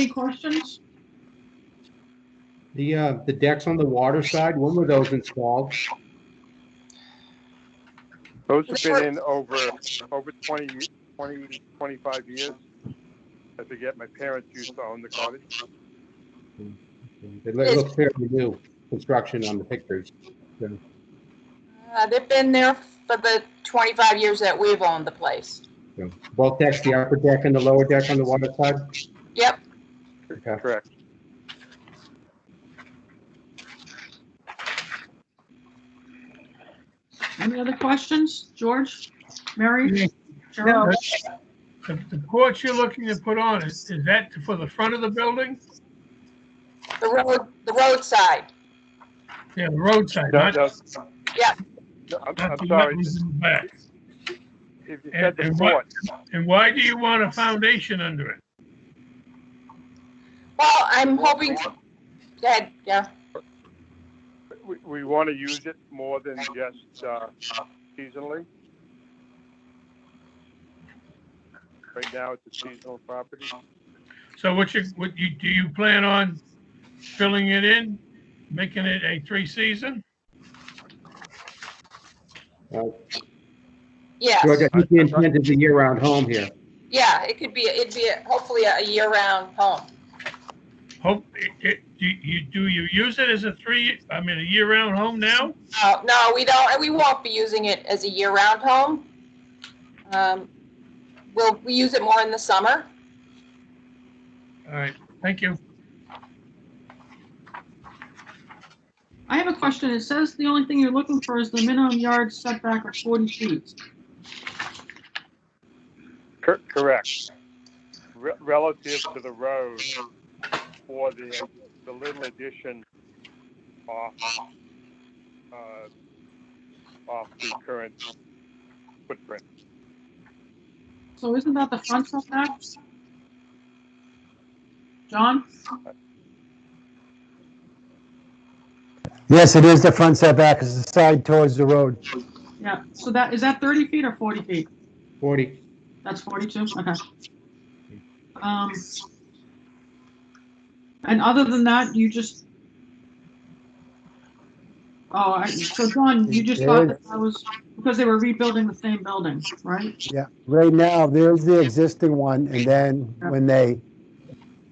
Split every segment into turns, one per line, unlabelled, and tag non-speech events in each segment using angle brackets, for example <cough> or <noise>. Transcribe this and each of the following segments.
Any questions?
The, uh, the decks on the water side, when were those installed?
Those have been in over, over 20, 20, 25 years. I forget, my parents used to own the cottage.
It loo- it looks fairly new construction on the pictures.
Uh, They've been there for the 25 years that we've owned the place.
So, Both decks, the upper deck and the lower deck on the water side?
Yep,
Okay.
Correct.
Any other questions? George, Mary,
No,
Cheryl?
The the porch you're looking to put on, is is that for the front of the building?
the road, the roadside.
Yeah, the roadside,
No,
not,
no.
Yeah.
No, I'm,
not
I'm
the
sorry,
wetlands in the back.
if you said
And-
the
and what-
porch,
And why do you want a foundation under it?
Well, I'm hoping, Dad, yeah,
we, we want to use it more than just, uh, seasonally. Right now, it's a seasonal property.
So what you, what you, do you plan on filling it in, making it a three-season?
George,
yes,
Uh, I think the intent is a year-round home here.
yeah, it could be, it'd be a- hopefully a year-round home.
Hope, it- it, do you, do you use it as a three, I mean, a year-round home now?
Uh, No, we don't, we won't be using it as a year-round home. Um, We'll, we use it more in the summer.
All right, thank you.
I have a question. It says the only thing you're looking for is the minimum yard setback of 40 feet.
Cor- Correct. Re- Relative to the road for the, the little addition off, uh, off the current footprint.
So isn't that the front setback? John?
Yes, it is the front setback, it's the side towards the road.
Yeah, so that, is that 30 feet or 40 feet?
Forty,
That's 42, okay. Um, And other than that, you just... Oh, I- so John, you just thought that that was because they were rebuilding the same building, right?
Yeah, right now, there's the existing one, and then when they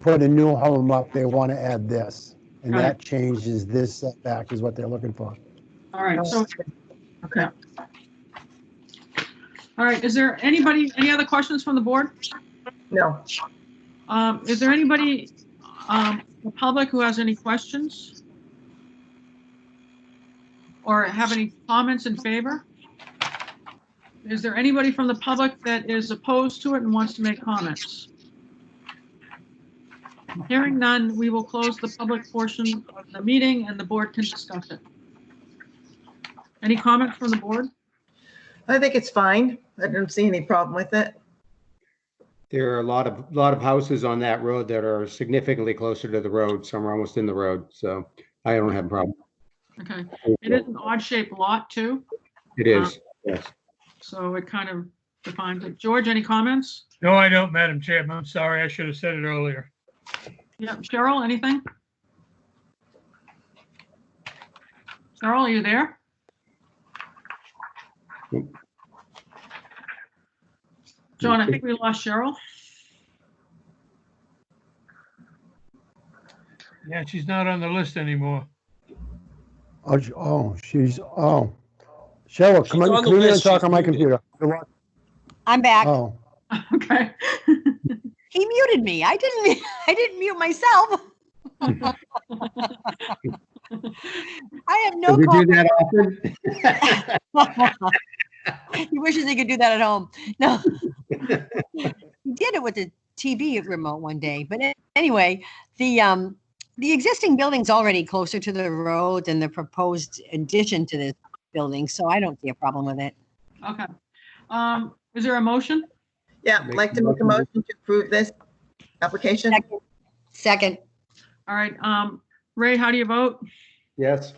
put a new home up, they want to add this. And that changes this setback is what they're looking for.
All right, so, okay. All right, is there anybody, any other questions from the board?
No,
Um, Is there anybody, um, the public who has any questions? Or have any comments in favor? Is there anybody from the public that is opposed to it and wants to make comments? Hearing none, we will close the public portion of the meeting and the board can discuss it. Any comment from the board?
I think it's fine. I don't see any problem with it.
there are a lot of, lot of houses on that road that are significantly closer to the road, some are almost in the road, so I don't have a problem.
Okay, it is an odd shaped lot too,
It is, yes.
so it kind of defines it. George, any comments?
No, I don't, Madam Chairman, I'm sorry, I should have said it earlier.
Yeah, Cheryl, anything? Cheryl, are you there? John, I think we lost Cheryl. <laughs>
Yeah, she's not on the list anymore.
Oh, sh- Oh, she's, oh. Cheryl, come
She's
on,
on the
come here and
list,
talk
she's
on my
muted.
computer.
I'm back.
Oh,
Okay.
He muted me. I didn't, <laughs> I didn't mute myself. <laughs> I have
Do
no
we do
call.
that often?
<laughs> He wishes he could do that at home. No. He did it with the TV remote one day, but a- anyway, the, um, the existing building's already closer to the road than the proposed addition to this building, so I don't see a problem with it.
Okay. Um, is there a motion?
Yeah, I'd like to make a motion to approve this application.
Second- Second,
All right, um, Ray, how do you vote?
Yes,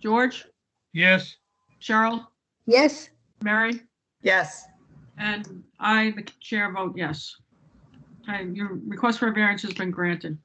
George,
Yes,
Cheryl,
yes,
Mary,
Yes,
and I, the chair vote yes. Okay, your request for a variance has been granted.